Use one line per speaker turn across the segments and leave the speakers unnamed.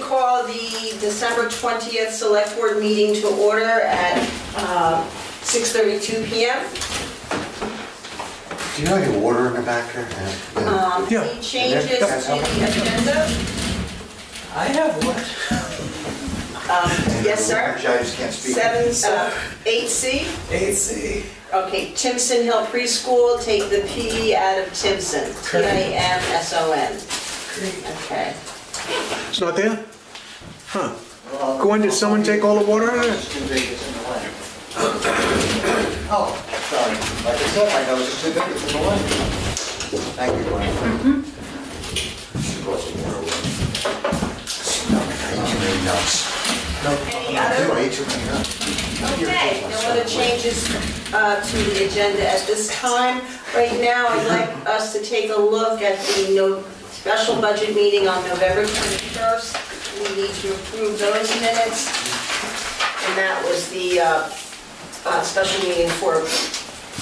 call the December 20th Select Board meeting to order at uh, 6:32 PM.
Do you know your water in the back there? Yeah, yeah.
Um,
Yeah.
Any changes to the agenda?
I have what?
Um, Yes, sir.
I just can't speak.
Seven, uh, 8C.
AC.
Okay, Timson Hill Preschool, take the P E out of Timson. T-I-M-S-O-N. Okay.
It's not there? Huh. Gwen, did someone take all the water out of it?
It's too big, it's in the way. Oh, sorry. Like I said, my nose is too big, it's in the way. Thank you, Gwen. She brought some water with her.
I eat too many nuts.
Any
You
other?
I eat too many nuts.
Okay, no other changes uh, to the agenda at this time. Right now, I'd like us to take a look at the no- special budget meeting on November 21st. We need to approve those minutes. And that was the uh, uh, special meeting for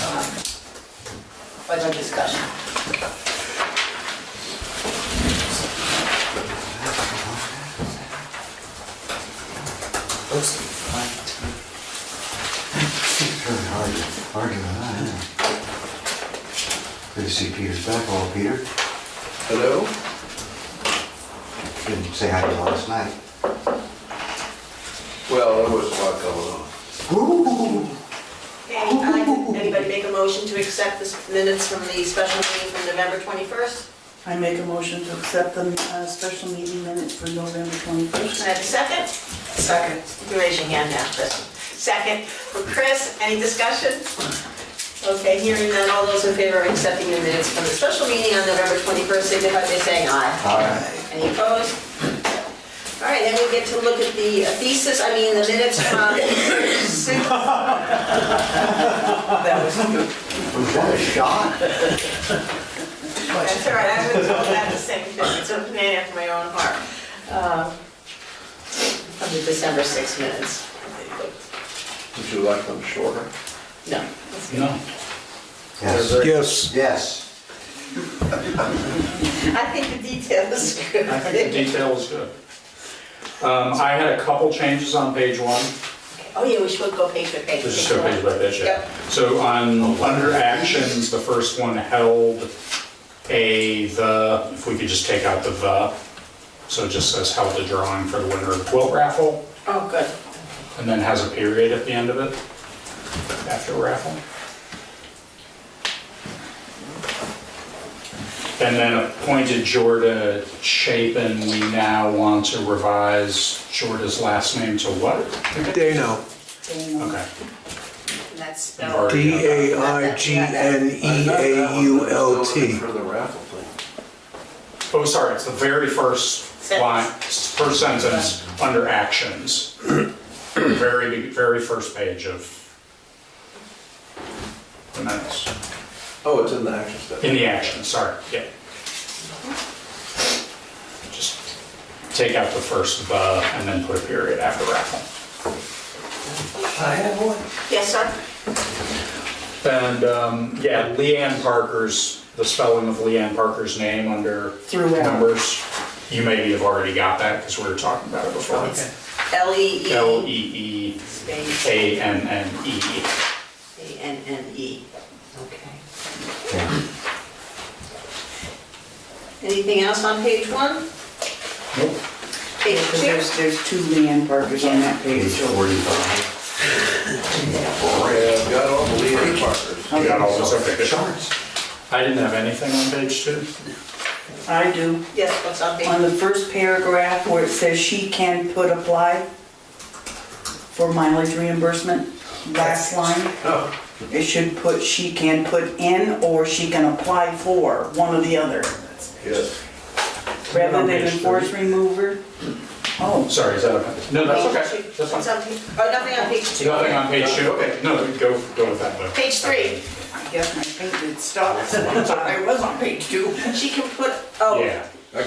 uh, budget discussion.
Those are fine. It's really hard, hard to, uh, good to see Peter's back, oh, Peter.
Hello?
Didn't say hi to you last night.
Well, there was a lot going on.
Ooh,
Okay, I'd like to- anybody make a motion to accept the minutes from the special meeting from November 21st?
I make a motion to accept the uh, special meeting minutes for November 21st.
Can I have a second? Second. You raise your hand now, Chris. Second for Chris, any discussion? Okay, hearing none, all those in favor of accepting the minutes from the special meeting on November 21st, signify by saying aye.
hi.
Any opposed? All right, then we get to look at the thesis, I mean, the minutes from...
Was that a shot?
That's all right, I was all about the same thing, it's a man after my own heart. Uh, Of the December 6 minutes.
Would you like them shorter?
No.
Yes,
Yes.
yes.
I think the detail is good.
I think the detail was good. Um, I had a couple changes on page one,
Oh, yeah, we should go page by page.
just go page by page.
Yep.
So on, under actions, the first one held a, the, if we could just take out the the, so it just says held a drawing for the winner of the quilt raffle,
Oh, good.
and then has a period at the end of it, after raffle. And then appointed Jorda Chapin, we now want to revise Jorda's last name to what?
Dano.
Okay.
And that's
You've
spelled.
already done that.
E D-A-I-G-N-E-A-U-L-T.
For the raffle thing.
Oh, sorry, it's the very first
Sentence.
line, first sentence, under actions. Very, very first page of the minutes.
Oh, it's in the action step.
In the actions, sorry, yeah. Just take out the first "the" and then put a period after raffle.
I have one.
Yes, sir?
And, um, yeah, Leanne Parker's, the spelling of Leanne Parker's name under
Throughout.
numbers. You maybe have already got that because we were talking about it before.
L-E-E.
L E E
Space.
A N N E.
A-N-N-E. E. Okay.
Okay.
Anything else on page one?
Nope.
Page
Because
two?
There's, there's two Leanne Parkers on that page.
He's
so-
forty-five.
Yeah, I've got all the leading partners.
We got all those up there.
Charts.
I didn't have anything on page two.
I do.
Yes, what's on page?
On the first paragraph where it says she can put apply for mileage reimbursement, last line,
Oh,
it should put she can put in or she can apply for, one or the other.
yes.
Rather than
Page three.
enforce remover. Oh,
Sorry, is that okay? No, that's
Page
okay.
two.
That's
What's
fine.
on page, oh, nothing on page two?
Nothing on page two, okay. No, go, go with that. but-
Page three.
I guess my page did stop. I was on page two.
She can put, oh,
Yeah.